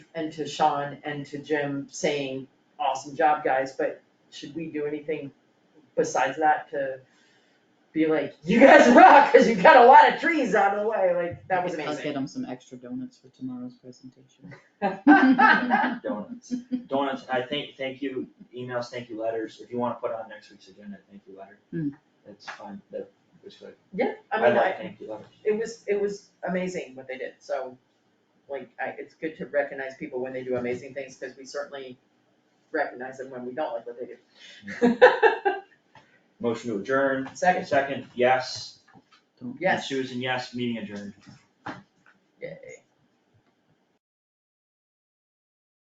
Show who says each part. Speaker 1: and to Sean and to Jim saying, awesome job, guys, but should we do anything besides that to be like, you guys rock, cause you got a lot of trees out of the way, like, that was
Speaker 2: I'll get
Speaker 1: amazing.
Speaker 2: them some extra donuts for tomorrow's presentation.
Speaker 3: Donuts, donuts, I think, thank you, emails, thank you letters, if you wanna put on next week's agenda, thank you letter.
Speaker 2: Hmm.
Speaker 3: That's fine, that was good,
Speaker 1: Yeah, I
Speaker 3: I
Speaker 1: mean,
Speaker 3: like
Speaker 1: I,
Speaker 3: thank you letters.
Speaker 1: it was, it was amazing what they did, so, like, I, it's good to recognize people when they do amazing things, cause we certainly recognize them when we don't like what they do.
Speaker 3: Motion to adjourn.
Speaker 1: Second.
Speaker 3: Second, yes,
Speaker 2: Don't-
Speaker 1: Yes,
Speaker 3: Susan, yes, meeting adjourned.
Speaker 1: yay.